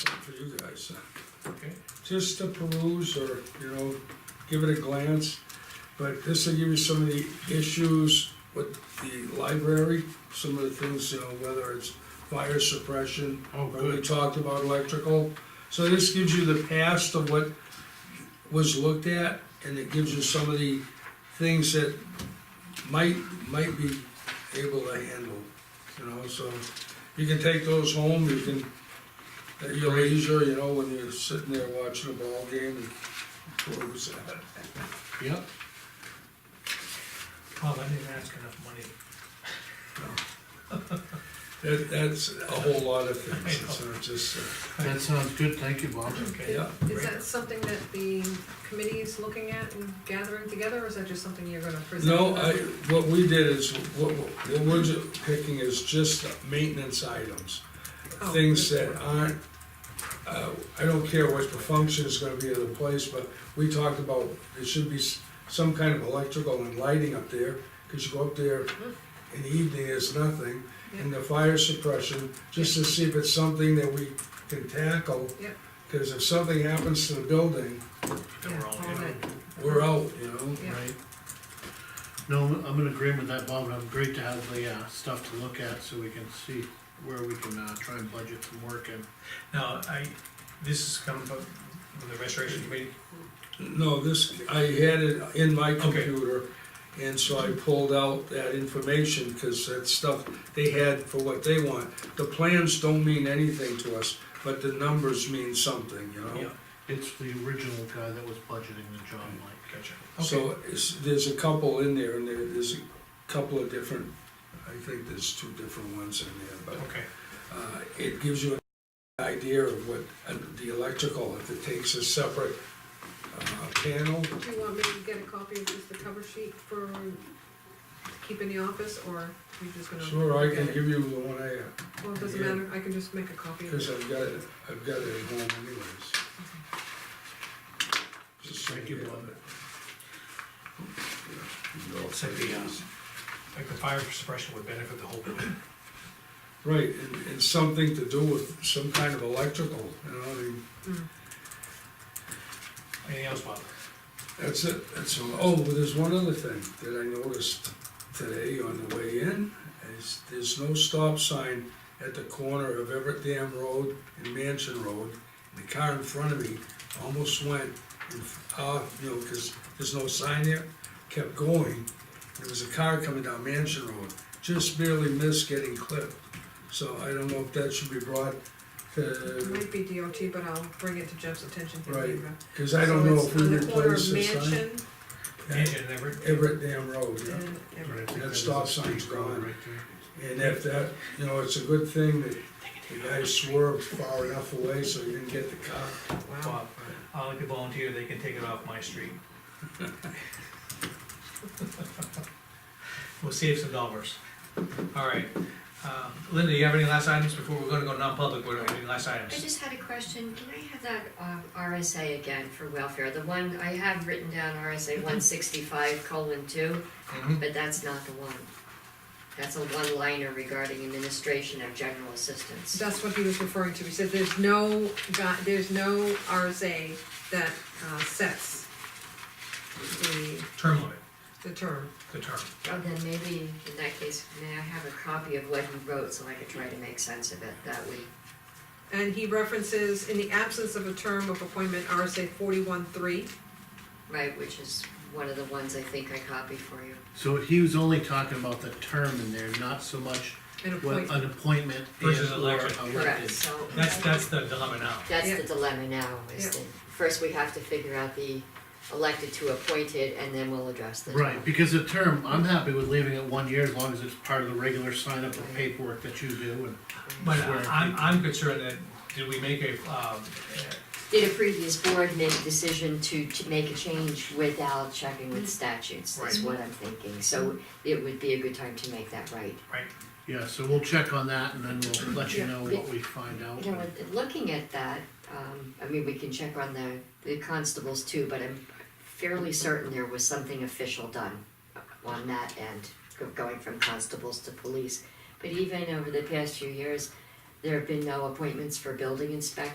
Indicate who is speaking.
Speaker 1: so,
Speaker 2: Okay.
Speaker 1: uh, just to peruse or, you know, give it a glance. But this will give you some of the issues with the library, some of the things, you know, whether it's fire suppression,
Speaker 2: Oh,
Speaker 1: or we
Speaker 2: good.
Speaker 1: talked about electrical. So this gives you the past of what was looked at, and it gives you some of the things that might, might be able to handle, you know, so. You can take those home, you can, at your leisure, you know, when you're sitting there watching a ball game and peruse that.
Speaker 2: Yep.
Speaker 3: Bob, I didn't ask enough money.
Speaker 1: That, that's a whole lot of things, it's not just, uh,
Speaker 2: That sounds good, thank you, Bob.
Speaker 3: Okay.
Speaker 1: yeah.
Speaker 4: Is that something that the committee is looking at and gathering together, or is that just something you're gonna present?
Speaker 1: No, I, what we did is, what, what we're ju- picking is just the maintenance items.
Speaker 4: Oh.
Speaker 1: Things that aren't, uh, I don't care what the function is gonna be of the place, but we talked about, there should be s- some kind of electrical and lighting up there, cause you go up there in the evening, there's nothing. And the fire suppression, just to see if it's something that we can tackle.
Speaker 4: Yep.
Speaker 1: Cause if something happens to the building,
Speaker 3: Then we're all
Speaker 4: Yeah, all
Speaker 3: in.
Speaker 4: right.
Speaker 1: we're out, you know?
Speaker 4: Yeah.
Speaker 2: Right. No, I'm in agreement with that, Bob, and I'm great to have the, uh, stuff to look at, so we can see where we can, uh, try and budget some work in.
Speaker 3: Now, I, this is coming from from the restoration committee,
Speaker 1: No, this, I had it in my
Speaker 3: Okay.
Speaker 1: computer, and so I pulled out that information, cause that stuff they had for what they want. The plans don't mean anything to us, but the numbers mean something, you
Speaker 3: yeah,
Speaker 1: know?
Speaker 2: It's the original guy that was budgeting the job, like.
Speaker 3: gotcha.
Speaker 1: So, it's, there's a couple in there, and there, there's a couple of different, I think there's two different ones in there, but,
Speaker 3: Okay,
Speaker 1: uh, it gives you an idea of what, uh, the electrical, if it takes a separate, uh, panel,
Speaker 4: Do you want me to get a copy of just the cover sheet for, to keep in the office, or you're just gonna?
Speaker 1: sure, I
Speaker 4: look
Speaker 1: can
Speaker 4: at it?
Speaker 1: give you the one I have.
Speaker 4: Well, it doesn't
Speaker 1: yeah.
Speaker 4: matter, I can just make a copy of
Speaker 1: Because
Speaker 4: it.
Speaker 1: I've got it, I've got it at home anyways. Just so
Speaker 2: Thank you, Bob.
Speaker 3: It's like the, uh, like the fire suppression would benefit the whole building.
Speaker 1: Right, and, and something to do with some kind of electrical, you know, I mean,
Speaker 4: Mm.
Speaker 3: Anything else, Bob?
Speaker 1: that's it, that's all. Oh, but there's one other thing that I noticed today on the way in, is there's no stop sign at the corner of Everett Dam Road and Mansion Road. The car in front of me almost went, and, uh, you know, because there's no sign there, kept going. There was a car coming down Mansion Road, just barely missed getting clipped. So I don't know if that should be brought
Speaker 4: It
Speaker 1: to,
Speaker 4: might be DOT, but I'll bring it to Jeff's attention. here
Speaker 1: Right.
Speaker 4: later.
Speaker 1: because I don't
Speaker 4: So
Speaker 1: know
Speaker 4: it's
Speaker 1: if we
Speaker 4: on the corner
Speaker 1: replace
Speaker 4: of
Speaker 1: the sign.
Speaker 4: Mansion
Speaker 3: Engine, never,
Speaker 1: Everett Dam Road, yeah.
Speaker 4: and Everett.
Speaker 1: That stop sign's gone. And if that, you know, it's a good thing that the guy swerved far enough away so he didn't get the cop.
Speaker 4: Wow.
Speaker 3: Bob, I'll like to volunteer, they can take it off my street. We'll save some dollars. All right, uh, Linda, you have any last items before we're gonna go non-public, what are any last
Speaker 5: I
Speaker 3: items?
Speaker 5: just had a question, can I have that um, RSA again for welfare? The one, I have written down RSA one sixty-five colon two,
Speaker 3: Mhm.
Speaker 5: but that's not the one. That's a one-liner regarding administration of general assistance.
Speaker 4: That's what he was referring to, he said there's no, gu- there's no RSA that uh, sets the,
Speaker 3: Term limit,
Speaker 4: the term.
Speaker 3: the term.
Speaker 5: Oh, then maybe in that case, may I have a copy of what he wrote so I could try to make sense of it that way?
Speaker 4: And he references, in the absence of a term of appointment, RSA forty-one three.
Speaker 5: Right, which is one of the ones I think I copied for you.
Speaker 2: So he was only talking about the term in there, not so much
Speaker 4: An
Speaker 2: what
Speaker 4: appointment,
Speaker 2: an appointment
Speaker 3: Versus
Speaker 2: is or
Speaker 3: election.
Speaker 2: elected.
Speaker 5: Correct, so.
Speaker 3: That's, that's the dilemma now.
Speaker 5: That's
Speaker 4: Yeah.
Speaker 5: the dilemma now, is
Speaker 4: Yeah.
Speaker 5: that first we have to figure out the elected to appointed, and then we'll address the.
Speaker 2: Right, because the term, I'm happy with leaving it one year as long as it's part of the regular sign up and paperwork that you do and.
Speaker 3: But
Speaker 2: Swear.
Speaker 3: I'm, I'm concerned that, did we make a, um,
Speaker 5: Did a previous board make a decision to, to make a change without checking with statutes, is
Speaker 3: Right.
Speaker 5: what I'm thinking, so it would be a good time to make that right.
Speaker 3: right,
Speaker 2: Yeah, so we'll check on that and then we'll let you
Speaker 4: Yeah.
Speaker 2: know what we find out.
Speaker 5: You know, with- looking at that, um, I mean, we can check on the, the constables too, but I'm fairly certain there was something official done on that end, go- going from constables to police. But even over the past few years, there have been no appointments for building inspectors.